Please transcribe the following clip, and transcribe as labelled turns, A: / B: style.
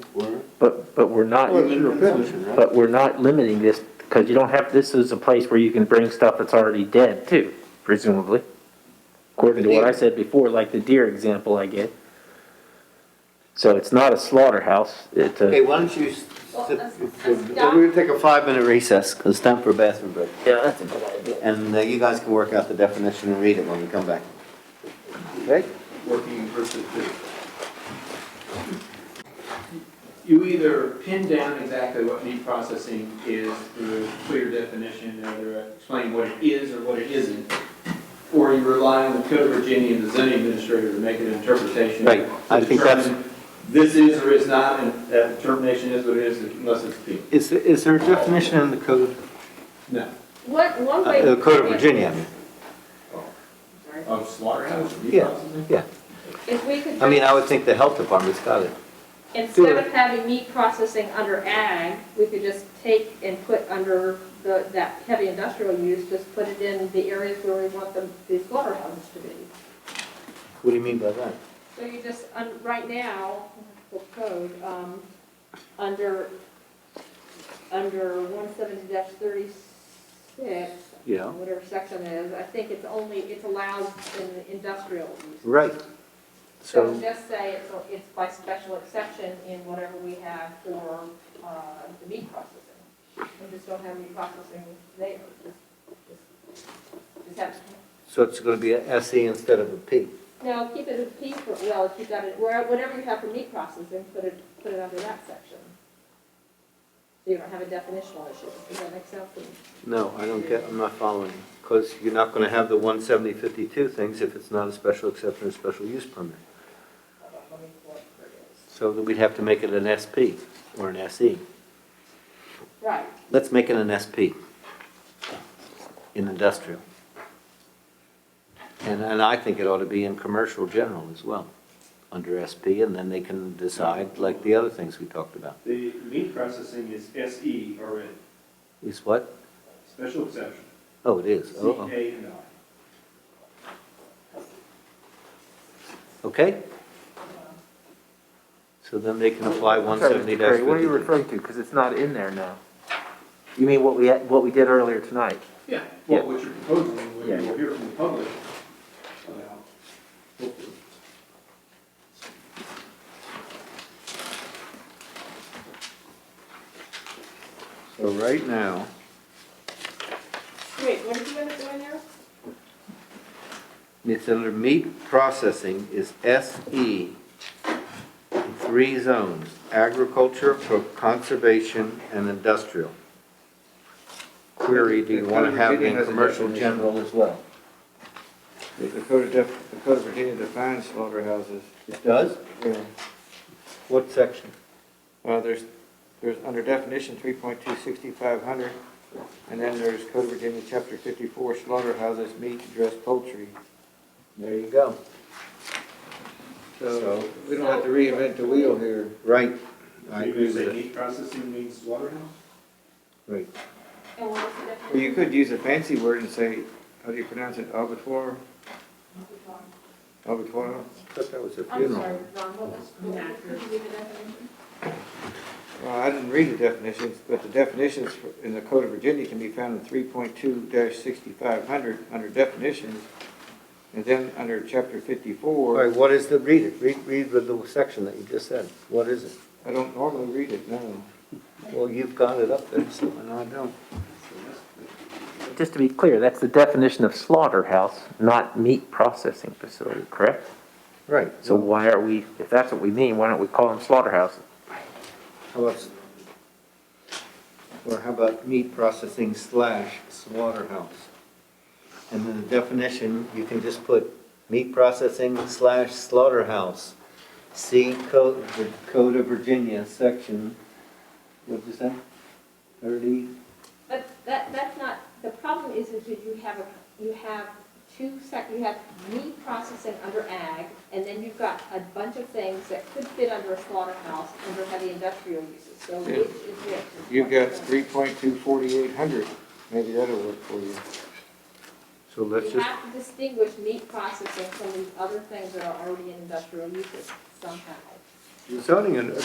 A: But, but we're not,
B: Well, it's your opinion, right?
A: but we're not limiting this, because you don't have, this is a place where you can bring stuff that's already dead too, presumably. According to what I said before, like the deer example I gave. So it's not a slaughterhouse, it's
C: Okay,
A: a,
C: why don't you, s-
D: Well,
C: sit-
D: let's-
C: we're
D: let's stop.
C: gonna take a five-minute recess, 'cause it's time for a bathroom break.
A: yeah, that's a good idea.
C: And uh, you guys can work out the definition and read it when we come back. Okay?
B: working versus this.
E: You either pin down exactly what meat processing is through a clear definition, or they're explaining what it is or what it isn't, or you rely on the Code of Virginia and the zoning administrator to make an interpretation.
C: Right, I
E: to
C: think that's-
E: determine This is or is not, and that determination is what it is unless it's appealed.
C: Is, is there a definition in the code, uh,
E: No,
D: One, one way.
C: the code of Virginia? I mean?
E: of slaughterhouse, meat
C: Yeah.
E: processing?
C: Yeah,
D: If we could.
C: I mean, I would think the health department's got it.
D: Instead of having meat processing under ag, we could just take and put under the, that heavy industrial use, just put it in the areas where we want the, the slaughterhouses to be.
C: What do you mean by that?
D: So you just, un- right now, the code, um, under, under one seventy thirty-six,
C: Yeah.
D: whatever section it is, I think it's only, it's allowed in the industrial use.
C: Right.
D: So
C: So,
D: just say it's, it's by special exception in whatever we have for, uh, the meat processing. We just don't have meat processing there. Just- just- just have-
C: so it's gonna be a SE instead of a P.
D: No, keep it a piece for, well, if you got it, where- whatever you have for meat processing, put it, put it under that section. So you don't have a definitional issue. Does that make sense?
C: No, I don't get, I'm not following. Because you're not gonna have the one seventy fifty-two things if it's not a special exception or special use permit. So then we'd have to make it an SP or an SE.
D: Right.
C: Let's make it an SP in industrial. And, and I think it ought to be in commercial general as well, under SP, and then they can decide like the other things we talked about.
E: The meat processing is SE already,
C: Is what?
E: special exception,
C: Oh, it is.
E: C,
C: Oh, oh.
E: A, and I.
C: oh, Okay? So then they can apply
A: I'm
C: one
A: sorry, Mr.
C: seventy
A: Curry, What are you
C: fifty-two.
A: referring to? Because it's not in there now. You mean what we, had- what we did earlier tonight?
E: Yeah,
A: Yeah.
E: well, what you're proposing, what
A: Yeah.
E: you will hear from the public about, hopefully.
C: So right now,
D: Wait, what did you end up doing there?
C: it's under meat processing is SE in three zones, agriculture, pro- conservation, and industrial. Query, do you want to have in commercial general as well?
B: The Code of, Def- the Code of Virginia defines slaughterhouses.
C: It does?
B: Yeah.
C: What section?
B: Well, there's, there's under definition three point two sixty-five hundred, and then there's Code of Virginia, chapter fifty-four, slaughterhouses, meat, and dressed poultry.
C: There you go.
B: So
C: So-
B: we don't have to reinvent the wheel here.
C: Right. I
E: Maybe
C: agree
E: you
C: with
E: say
C: it.
E: meat processing means slaughterhouse?
C: Right.
D: And Oh, what was the
B: Well, you
D: definition?
B: could use a fancy word and say, how do you pronounce it, abattoir, abattoir?
C: Thought that was a
D: I'm
C: funeral.
D: sorry, Ron, what was, what was the definition?
B: Well, I didn't read the definitions, but the definitions for- in the Code of Virginia can be found in three point two sixty-five hundred, under definitions. And then under chapter
C: All
B: fifty-four,
C: right, what is the, read it, read, read the little section that you just said. What is it?
B: I don't normally read it, no.
C: Well, you've got it up there, so, and I don't.
A: Just to be clear, that's the definition of slaughterhouse, not meat processing facility, correct?
C: Right.
A: So why are we, if that's what we mean, why don't we call them slaughterhouses?
C: How about, or how about meat processing slash slaughterhouse? And then the definition, you can just put meat processing slash slaughterhouse. See code, the Code of Virginia, section, what'd you say? Thirty?
D: But that, that's not, the problem is, is that you have, a you have two sec, you have meat processing under ag, and then you've got a bunch of things that could fit under a slaughterhouse, under heavy industrial uses, so which is which?
B: You've got three point two forty-eight hundred, maybe that'll work for you.
C: So let's
D: You
C: just,
D: have to distinguish meat processing from these other things that are already in industrial uses somehow.
C: zoning, and-